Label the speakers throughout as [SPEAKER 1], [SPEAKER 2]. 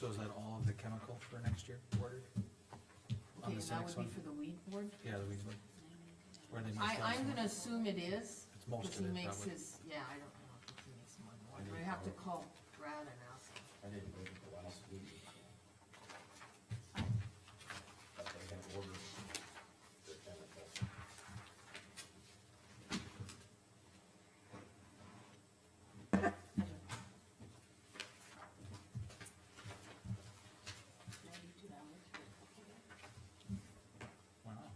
[SPEAKER 1] So is that all of the chemical for next year ordered? On
[SPEAKER 2] Okay,
[SPEAKER 1] this
[SPEAKER 2] that
[SPEAKER 1] next
[SPEAKER 2] would be
[SPEAKER 1] one?
[SPEAKER 2] for the weed board?
[SPEAKER 1] Yeah, the weeds one. Where they
[SPEAKER 2] I,
[SPEAKER 1] must
[SPEAKER 2] I'm
[SPEAKER 1] have,
[SPEAKER 2] gonna assume it is,
[SPEAKER 1] it's
[SPEAKER 2] cause
[SPEAKER 1] most
[SPEAKER 2] he
[SPEAKER 1] of it
[SPEAKER 2] makes
[SPEAKER 1] probably.
[SPEAKER 2] his, yeah, I don't, I don't think he makes more than one,
[SPEAKER 1] I
[SPEAKER 2] but I
[SPEAKER 1] didn't
[SPEAKER 2] have to
[SPEAKER 1] know.
[SPEAKER 2] call Brad and ask him.
[SPEAKER 3] I didn't look at the last week. But they had ordered their chemicals.
[SPEAKER 1] Wow.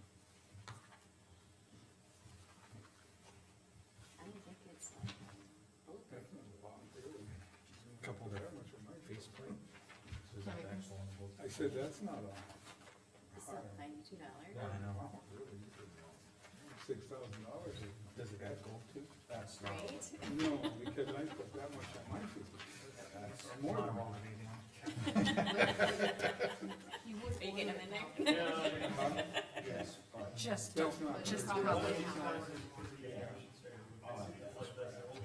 [SPEAKER 4] I don't think it's like,
[SPEAKER 1] Couple of their faceplate. So is that the actual one?
[SPEAKER 5] I said, that's not on,
[SPEAKER 4] it's not ninety-two dollars.
[SPEAKER 1] Yeah, I know.
[SPEAKER 5] six thousand dollars.
[SPEAKER 1] Does it got gold too?
[SPEAKER 3] That's not,
[SPEAKER 4] Right?
[SPEAKER 5] No, because I put that much on my system.
[SPEAKER 3] that's,
[SPEAKER 5] More than
[SPEAKER 1] Not all
[SPEAKER 5] one.
[SPEAKER 1] of it, yeah.
[SPEAKER 2] He would
[SPEAKER 4] Are you getting
[SPEAKER 2] order
[SPEAKER 4] him in
[SPEAKER 2] it,
[SPEAKER 4] there?
[SPEAKER 3] yes, but
[SPEAKER 6] Just,
[SPEAKER 5] That's not.
[SPEAKER 2] but it's
[SPEAKER 5] very
[SPEAKER 2] probably
[SPEAKER 5] good.
[SPEAKER 2] not ordered.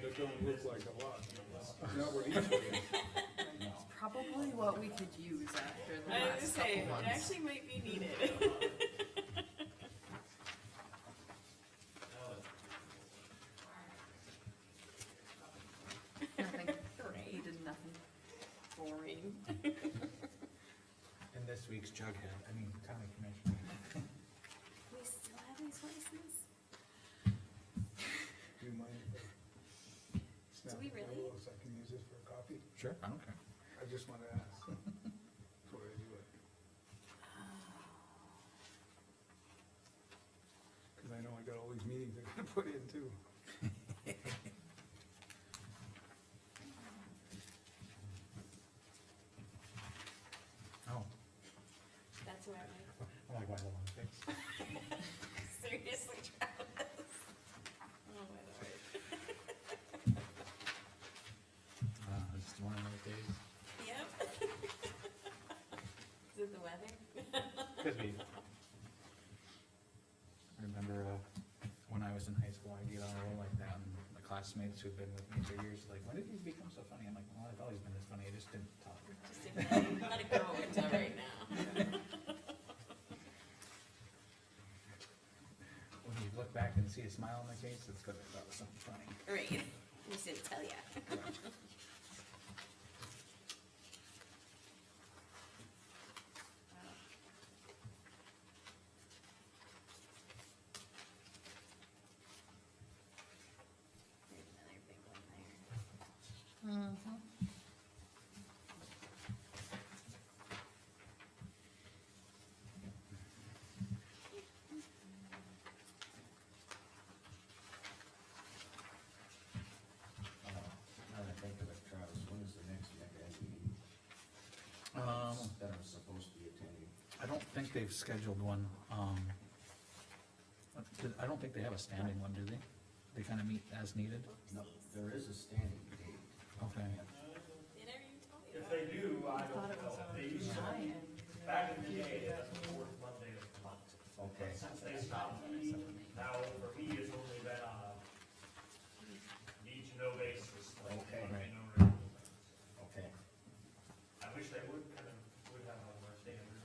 [SPEAKER 5] That don't look like a lot. Not what each one is.
[SPEAKER 2] It's probably what we could use after the
[SPEAKER 4] I was
[SPEAKER 2] last
[SPEAKER 4] saying,
[SPEAKER 2] couple
[SPEAKER 4] it
[SPEAKER 2] months.
[SPEAKER 4] actually might be needed.
[SPEAKER 2] Nothing, he
[SPEAKER 4] Right.
[SPEAKER 2] did nothing.
[SPEAKER 4] Boring.
[SPEAKER 1] And this week's Jughead, I mean, county commissioner.
[SPEAKER 4] We still have these voices?
[SPEAKER 5] Do you mind if I snap
[SPEAKER 4] we
[SPEAKER 5] the
[SPEAKER 4] really?
[SPEAKER 5] photo So I can use this for a copy?
[SPEAKER 1] Sure, I don't care.
[SPEAKER 5] I just wanna ask. Before I do it.
[SPEAKER 4] Oh.
[SPEAKER 5] Cause I know I got all these meetings I gotta put in too.
[SPEAKER 1] Oh,
[SPEAKER 4] That's where I'm
[SPEAKER 1] I like why the long face.
[SPEAKER 4] like, seriously, Travis? Oh, my lord.
[SPEAKER 1] Uh, it's one of those days.
[SPEAKER 4] Yep. Is it the weather?
[SPEAKER 1] Could be. Remember, uh, when I was in high school, I'd get on a roll like that, and the classmates who'd been with me for years, like, when did you become so funny? I'm like, well, I've always been this funny, I just didn't talk.
[SPEAKER 4] Just ignore it. let it go, it's all right now.
[SPEAKER 1] When you look back and see a smile on my face, it's because I thought it was something funny.
[SPEAKER 4] Right, just didn't tell ya. There's another big one there. Mm-hmm.
[SPEAKER 3] uh, now that I think of it, Travis, when is the next MAC meeting?
[SPEAKER 1] Um,
[SPEAKER 3] That I'm supposed to be attending.
[SPEAKER 1] I don't think they've scheduled one, um, I don't think they have a standing one, do they? They kinda meet as needed?
[SPEAKER 3] No, there is a standing date.
[SPEAKER 1] Okay.
[SPEAKER 4] They never even told me
[SPEAKER 7] If
[SPEAKER 4] about it.
[SPEAKER 7] they do, I don't know, they used to, back in the day, that's the fourth Monday of the month.
[SPEAKER 3] Okay.
[SPEAKER 7] Since they stopped meeting, now for me, it's only been on a need to know basis, like,
[SPEAKER 3] Okay.
[SPEAKER 7] you
[SPEAKER 1] Right.
[SPEAKER 7] know, regular.
[SPEAKER 3] Okay.
[SPEAKER 7] I wish they would kind of, would have a more standard.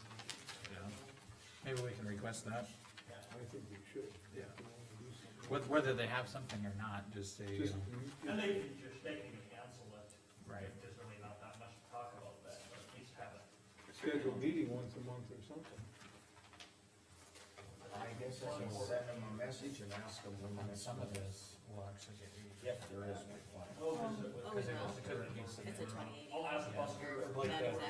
[SPEAKER 1] Maybe we can request that,
[SPEAKER 5] I think we should.
[SPEAKER 1] Yeah.
[SPEAKER 5] If we wanna do something.
[SPEAKER 1] Whether- whether they have something or not, just say, you
[SPEAKER 5] Just,
[SPEAKER 1] know.
[SPEAKER 7] And they can just, they can cancel it.
[SPEAKER 1] Right.
[SPEAKER 7] If There's really not that much to talk about that, but at least have it.
[SPEAKER 5] schedule a meeting once a month or something.
[SPEAKER 3] I guess I can send them a message and ask them when the next
[SPEAKER 1] Some
[SPEAKER 3] one
[SPEAKER 1] of
[SPEAKER 3] is.
[SPEAKER 1] this will actually get used.
[SPEAKER 3] Yep, there is one.
[SPEAKER 7] Oh, is it with-
[SPEAKER 4] Oh, no,
[SPEAKER 1] Because it was-
[SPEAKER 4] it's a twenty-eight.
[SPEAKER 7] I'll ask the bus.
[SPEAKER 4] Not exactly.